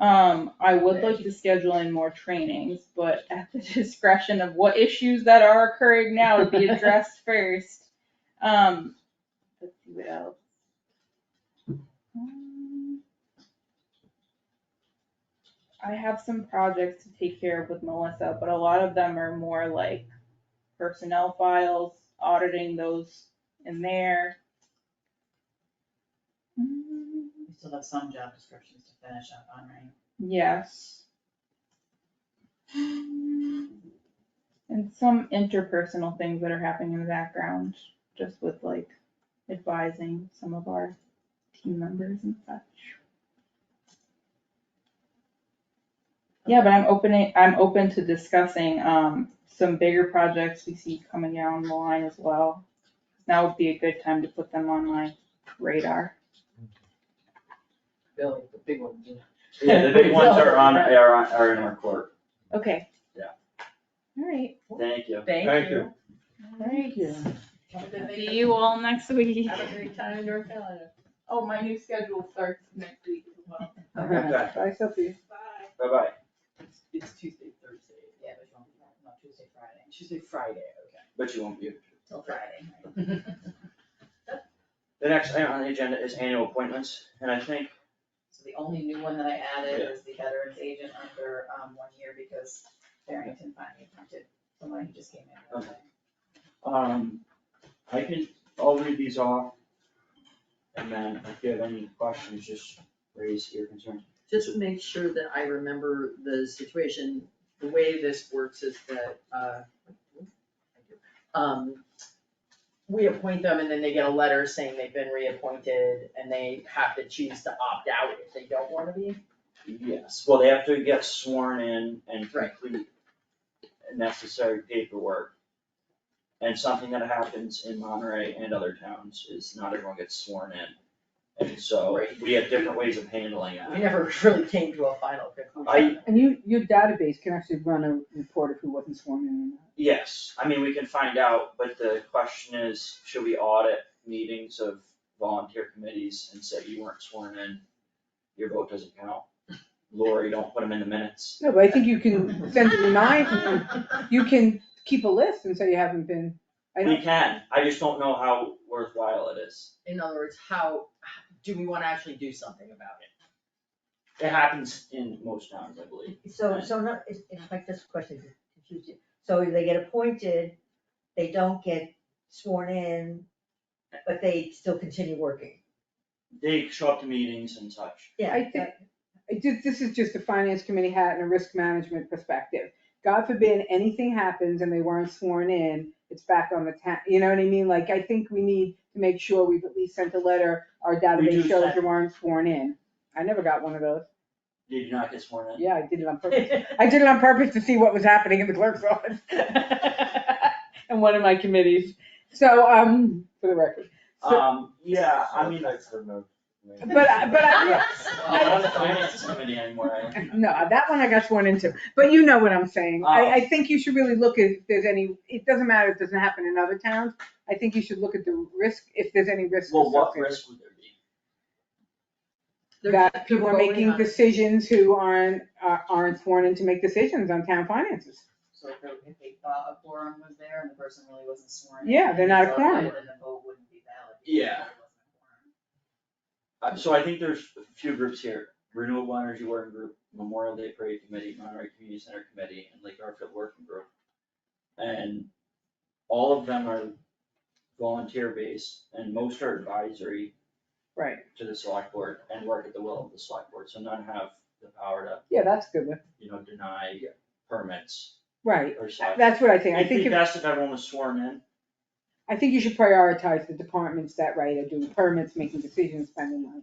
Um, I would like to schedule in more trainings, but at the discretion of what issues that are occurring now to be addressed first. Um, let's see what else. Um, I have some projects to take care of with Melissa, but a lot of them are more like personnel files, auditing those in there. Mm, We still have some job descriptions to finish up on, right? Yes. And some interpersonal things that are happening in the background, just with like advising some of our team members and such. Yeah, but I'm opening, I'm open to discussing, um, some bigger projects we see coming down the line as well. Now would be a good time to put them on my radar. Bill, the big one, you know. Yeah, the big ones are on, are on, are in our court. Okay. Yeah. All right, Thank you. Thank you. all right. Have a good See vacation. you all next week. Have a great time in North Carolina. Oh, my new schedule starts next week as well. Bye-bye. I still see. Bye. It's, it's Tuesday, Thursday. Yeah, but it's not, not Tuesday, Friday. Tuesday, Friday, okay. But you won't be. Till Friday. The next item on the agenda is annual appointments, and I think So the only new one that I added is the veterans agent under, um, one year because Barrington finally appointed someone who just came in. Uh-huh. Okay. Um, I can, I'll read these off. And then if you have any questions, just raise your concern. Just make sure that I remember the situation, the way this works is that, uh, um, we appoint them and then they get a letter saying they've been reappointed and they have to choose to opt out if they don't wanna be. Yes, well, they have to get sworn in and Right. complete necessary paperwork. And something that happens in Monterey and other towns is not everyone gets sworn in. And so Right. we have different ways of handling We that. never really came to a final conclusion. And you, your database can actually run a report of who wasn't sworn in. Yes, I mean, we can find out, but the question is, should we audit meetings of volunteer committees and say you weren't sworn in? Your vote doesn't count. Lori, don't put them in the minutes. No, but I think you can send a reminder, you can keep a list and say you haven't been. I We don't, can, I just don't know how worthwhile it is. In other words, how, do we wanna actually do something about it? It happens in most towns, I believe. So, so not, it's, it's like this question, is confusing. so they get appointed, they don't get sworn in, but they still continue working. They show up to meetings and such. Yeah, I think- that- I did, this is just a finance committee hat and a risk management perspective. God forbid anything happens and they weren't sworn in, it's back on the town, you know what I mean? Like, I think we need to make sure we've at least sent a letter, our do database shows send- you weren't sworn in. I never got one of those. Did you not get sworn in? Yeah, I did it on purpose. I did it on purpose to see what was happening in the clerk's office. And one of my committees. So, um, for the record. So- Um, yeah, I mean, Thanks for the- But, I- but I, I'm not on the finance committee anymore. I- no, uh, that one I got sworn into. But you know what I'm saying. Oh. I, I think you should really look at if there's any, it doesn't matter if it doesn't happen in other towns. I think you should look at the risk, if there's any risk. Well, what associated. risk would there be? There's That people people are voting making on- decisions who aren't, are- aren't sworn in to make decisions on town finances. So if, there- if they thought a quorum was there and the person really wasn't sworn in. Yeah, they're not a so Then quorum. the vote wouldn't be valid. because Yeah. it wasn't a quorum. Uh, So I think there's a few groups here, Renewable Energy Working Group, Memorial Day Parade Committee, Monterey Community Center Committee, and Lake Garfield Working Group. And all of them are volunteer based and most are advisory Right. to the select board and work at the will of the select board, so none have the power to, Yeah, that's a good. one. you know, deny permits Right. or such. That's what I think. I It'd think be if best if everyone was sworn in, I think you should prioritize the departments that, right, are doing permits, making decisions, spending money.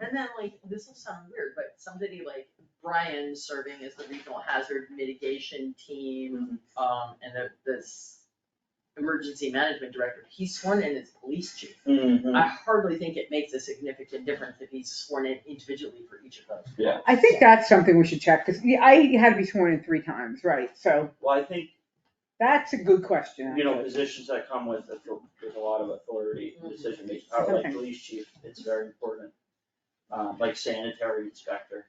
And then like, this will sound weird, but somebody like Brian serving as the regional hazard mitigation team, Mm-hmm. um, and the, this emergency management director, he's sworn in as police chief. Mm. I hardly think it makes a significant difference if he's sworn in individually for each of those. I think that's something we should check, because I had to be sworn in three times, right, so Well, I think, that's a good question. you know, positions that come with, author- with a lot of authority, Mhm. decision making, power, like Okay. police chief, it's very important. Uh, like Um, sanitary inspector,